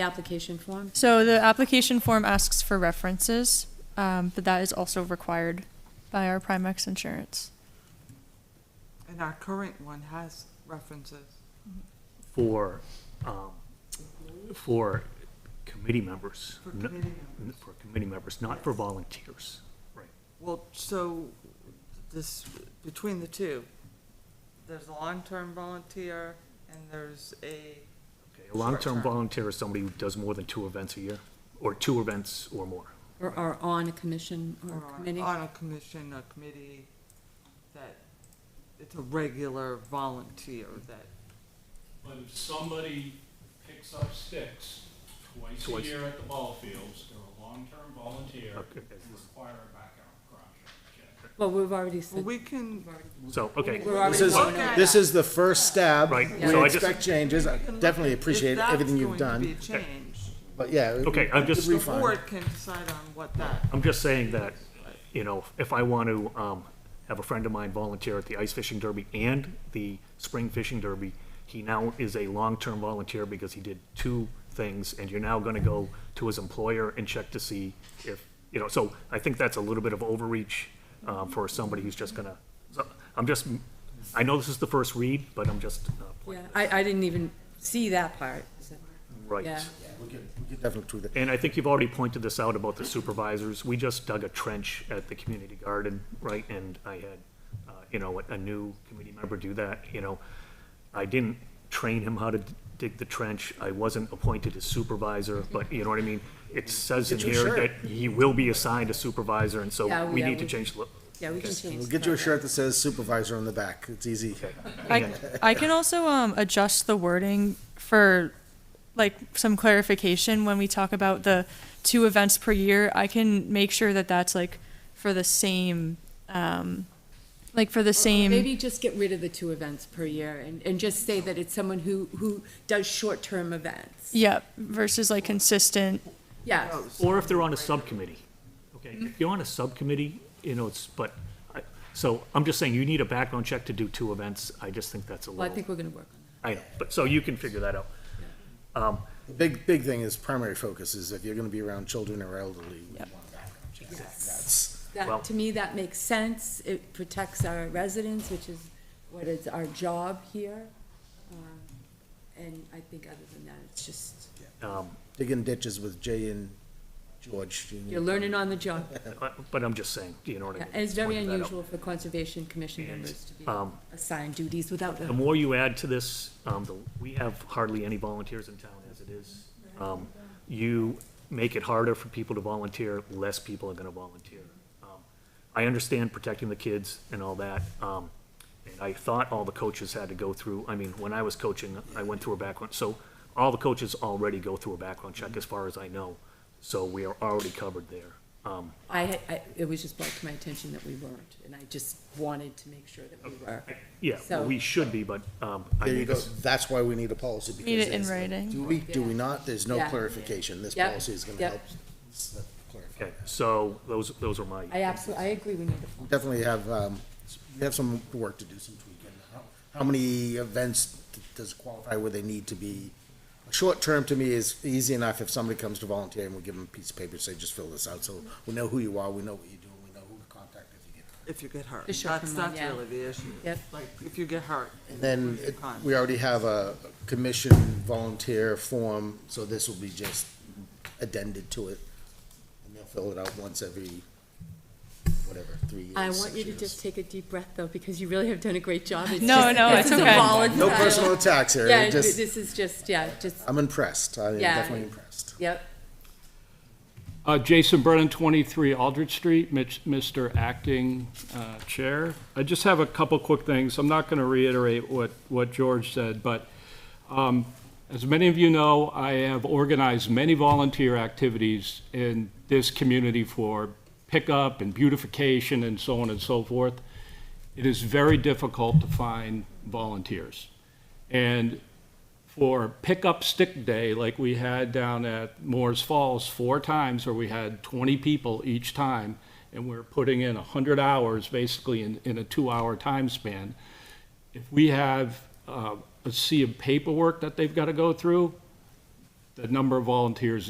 The application form? So the application form asks for references, um, but that is also required by our Primex insurance. And our current one has references. for, um, for committee members. For n- committee n- For committee members, not for volunteers. Right. Well, so this, between the two, there's a long-term volunteer and there's a, Okay, A long-term Short-term. volunteer is somebody who does more than two events a year, or two events or more. Or, or on a commission or or a on committee? on a commission, a committee, that it's a regular volunteer that, But if somebody picks up sticks twice a Twice. year at the ball fields, they're a long-term volunteer and Okay, that's- require a background check. check. Well, we've already well, said, we can, So, okay, we're already This is, going Okay. over. this is the first stab. Right, We so I just- expect changes. I Definitely appreciate everything you've If done, that's going to be a change, but yeah. Okay, I'm just- the Refund. board can decide on what that, I'm just saying that, you know, if I want to, um, have a friend of mine volunteer at the ice fishing derby and the spring fishing derby, he now is a long-term volunteer because he did two things, and you're now gonna go to his employer and check to see if, you know, so I think that's a little bit of overreach, um, for somebody who's just gonna, so, I'm just, I know this is the first read, but I'm just, uh, Yeah, I, I didn't even see that part. so- right. Yeah. We can we can definitely do that. And I think you've already pointed this out about the supervisors. We just dug a trench at the community garden, right? And I had, uh, you know, a new committee member do that, you know. I didn't train him how to d- dig the trench. I wasn't appointed as supervisor, but you know what I mean? It says in Get your here that shirt. he will be assigned a supervisor, and so Yeah, we yeah, need to we- change. the- Yeah, we can change. We'll the get you a paragraph. shirt that says supervisor on the back. It's easy. I, I can also, um, adjust the wording for, like, some clarification when we talk about the two events per year. I can make sure that that's like for the same, um, like for the same. Maybe just get rid of the two events per year and, and just say that it's someone who, who does short-term events. Yeah, versus like consistent. Yes. Oh. Or if they're on a subcommittee. Okay, Mm-hmm. if you're on a subcommittee, you know, it's, but, I- so I'm just saying, you need a background check to do two events. I just think that's a little. Well, I think we're gonna work on I know, but, so you can figure that out. Um, The big, big thing is primary focus is if you're gonna be around children or elderly. we Yep. want background checks. Yes. That's- that. Well- That, to me, that makes sense. It protects our residents, which is what is our job here. Um, And I think other than that, it's just, um, Digging ditches with Jay and George. you know. you're learning on the job. I- Uh, But I'm just saying, you know what I Yeah, mean? And it's very Pointed that out. unusual for Conservation Commission members to be Um, assigned duties without The a more you add to this, um, the, we have hardly any volunteers in town as it is. Um, you make it harder for people to volunteer, less people are gonna volunteer. Um, I understand protecting the kids and all that, um, and I thought all the coaches had to go through, I mean, when I was coaching, I went through a background, so all the coaches already go through a background check, as far as I know, so we are already covered there. Um, I, I, it was just brought to my attention that we weren't, and I just wanted to make sure that we were. Yeah, well, So- we should be, but, um, I There you think go. this, That's why we need a policy. because Need it in there's- writing. Do we, do we not? There's no Yeah. clarification. This Yep. policy is gonna Yep. help s- clarify. okay, so those, those are my. I absolutely, I agree we need a, definitely have, um, we have some work to do, some tweaking. How- How many events d- does qualify where they need to be? Short term to me is easy enough if somebody comes to volunteer and we give them a piece of paper, say, just fill this out, so we know who you are, we know what you do, and we know who to contact if you get. hurt. if you get hurt. The short That's, term one, that's yeah. really the issue. Yep. Like, if you get hurt. And then who you it- contact. we already have a commission volunteer form, so this will be just addended to it. And they'll fill it out once every, whatever, three years. I want you six to years. just take a deep breath, though, because you really have done a great job. It's No, just- no, this it's is a okay. volatile- No personal attacks here, Yeah, just- this is just, yeah, just, I'm impressed. I am Yeah. definitely impressed. yep. Uh, Jason Brennan, 23 Aldrich Street, Mitch- Mr. Acting uh, Chair. I just have a couple quick things. I'm not going to reiterate what, what George said, but um, as many of you know, I have organized many volunteer activities in this community for pickup and beautification and so on and so forth. It is very difficult to find volunteers. And for pickup stick day like we had down at Moore's Falls four times where we had 20 people each time and we're putting in 100 hours basically in, in a two-hour time span. If we have uh, a sea of paperwork that they've got to go through, the number of volunteers